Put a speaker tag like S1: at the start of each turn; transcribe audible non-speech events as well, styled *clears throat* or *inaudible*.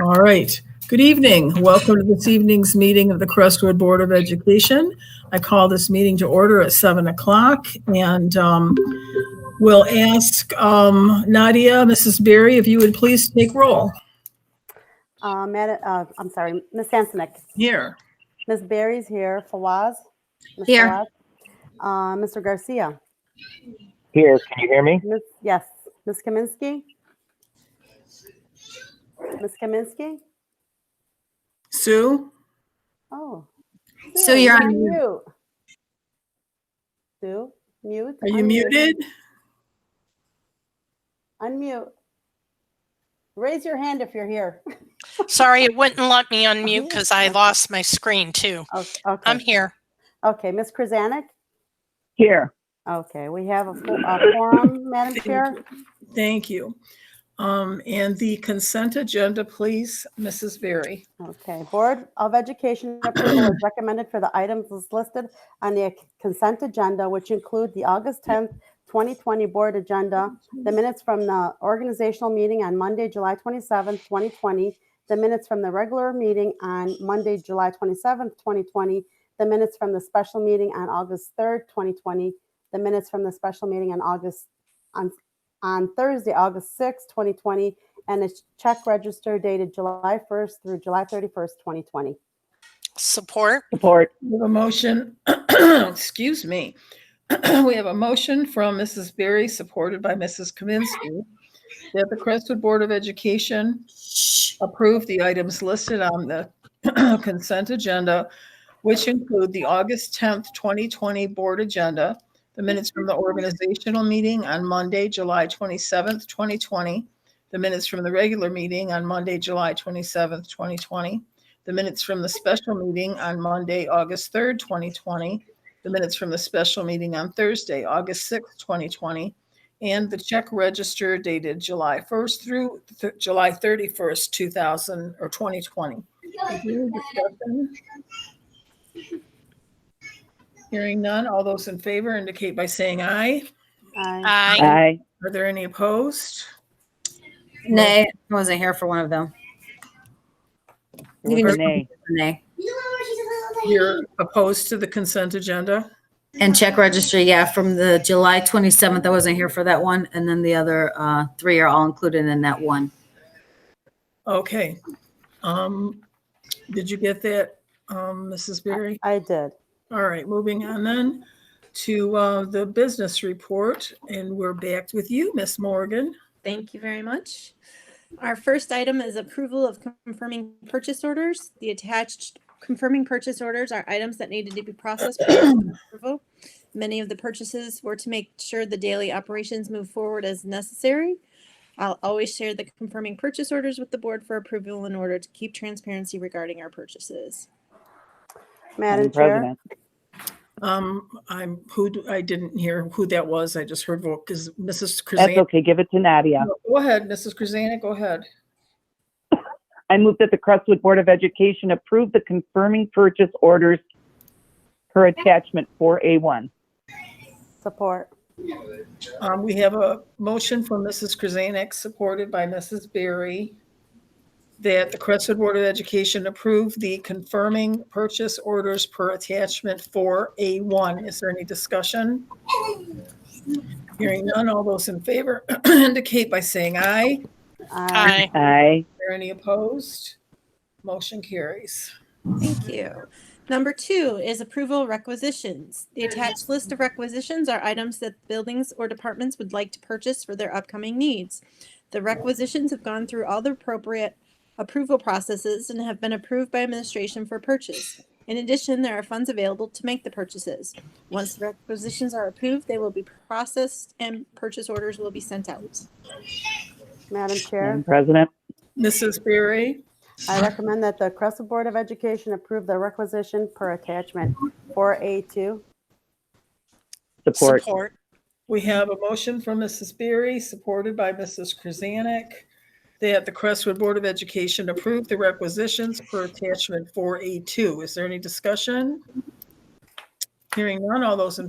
S1: All right. Good evening. Welcome to this evening's meeting of the Crestwood Board of Education. I call this meeting to order at 7 o'clock and um, we'll ask um, Nadia, Mrs. Berry, if you would please take roll
S2: Uh, Mad- uh, I'm sorry, Ms. Sansonick.
S1: here.
S2: Ms. Berry's here. Fawaz? Ms.
S3: Here.
S2: Fawaz? Uh, Mr. Garcia?
S4: Here, can you hear me?
S2: Ms. Yes. Ms. Kaminsky? Ms. Kaminsky?
S1: Sue?
S2: Oh.
S3: Sue, you're on
S2: mute. Sue, mute.
S1: Are you
S2: unmute,
S1: muted?
S2: Unmute. Raise your hand if you're
S3: *laughs*
S2: here.
S5: Sorry, it wouldn't let me unmute
S2: yeah,
S5: because I
S2: okay.
S5: lost my screen too.
S2: Oh,
S5: I'm
S2: Okay,
S5: here.
S2: okay. Ms. Krasanik?
S4: Here.
S2: Okay, we have a fo- a forum, Madam Chair.
S1: Thank you. Um, And the consent agenda, please, Mrs. Berry.
S2: Okay, Board of Education approval is recommended for the items as listed on the consent agenda, which include the August 10th, 2020 Board Agenda, the minutes from the organizational meeting on Monday, July 27th, 2020, the minutes from the regular meeting on Monday, July 27th, 2020, the minutes from the special meeting on August 3rd, 2020, the minutes from the special meeting on August, on on Thursday, August 6th, 2020, and a check register dated July 1st through July 31st, 2020.
S5: Support.
S4: Support.
S1: We have a motion, *clears throat* excuse me. *clears throat* We have a motion from Mrs. Berry, supported by Mrs. Kaminsky, that the Crestwood Board of Education approve the items listed on the *clears throat* consent agenda, which include the August 10th, 2020 Board Agenda, the minutes from the organizational meeting on Monday, July 27th, 2020, the minutes from the regular meeting on Monday, July 27th, 2020, the minutes from the special meeting on Monday, August 3rd, 2020, the minutes from the special meeting on Thursday, August 6th, 2020, and the check register dated July 1st through th- July 31st, 2000 or 2020. Is there any discussion? Hearing none, all those in favor indicate by saying aye.
S2: Aye.
S5: I
S4: Aye.
S1: Are there any opposed?
S3: Nay, I wasn't here for one of them. You can just-
S4: Nay.
S3: Nay.
S1: You're opposed to the consent agenda?
S3: And check registry, yeah, from the July 27th, I wasn't here for that one. And then the other uh, three are all included in that one.
S1: Okay. Um, Did you get that, um, Mrs. Berry?
S2: I did.
S1: All right, moving on then to uh, the business report, and we're back with you, Miss Morgan.
S6: Thank you very much. Our first item is approval of confirming purchase orders. The attached confirming purchase orders are items that needed to be processed. for approval. Many of the purchases were to make sure the daily operations move forward as necessary. I'll always share the confirming purchase orders with the board for approval in order to keep transparency regarding our purchases.
S2: Madam
S4: Madam
S2: Chair,
S4: President.
S1: Um, I'm, who, do- I didn't hear who that was. I just heard, because Mrs.
S4: That's
S1: Krasanik.
S4: okay, give it to Nadia.
S1: Go ahead, Mrs. Krasanik, go ahead.
S4: I move that the Crestwood Board of Education approve the confirming purchase orders per attachment 4A1.
S2: support.
S1: Um, We have a motion from Mrs. Krasanik, supported by Mrs. Berry, that the Crestwood Board of Education approve the confirming purchase orders per attachment for A1. Is there any discussion? Hearing none, all those in favor *clears throat* indicate by saying aye.
S2: Aye.
S5: I
S4: Aye.
S1: Are there any opposed? Motion carries.
S6: Thank you. Number two is approval requisitions. The attached list of requisitions are items that buildings or departments would like to purchase for their upcoming needs. The requisitions have gone through all the appropriate approval processes and have been approved by administration for purchase. In addition, there are funds available to make the purchases. Once the requisitions are approved, they will be processed and purchase orders will be sent out.
S2: Madam
S4: Madam
S2: Chair,
S4: President.
S1: Mrs. Berry,
S2: I recommend that the Crescent Board of Education approve the requisition per attachment 4A2.
S4: Support.
S5: Support.
S1: we have a motion from Mrs. Berry, supported by Mrs. Krasanik, that the Crestwood Board of Education approve the requisitions per attachment 4A2. Is there any discussion? Hearing none, all those in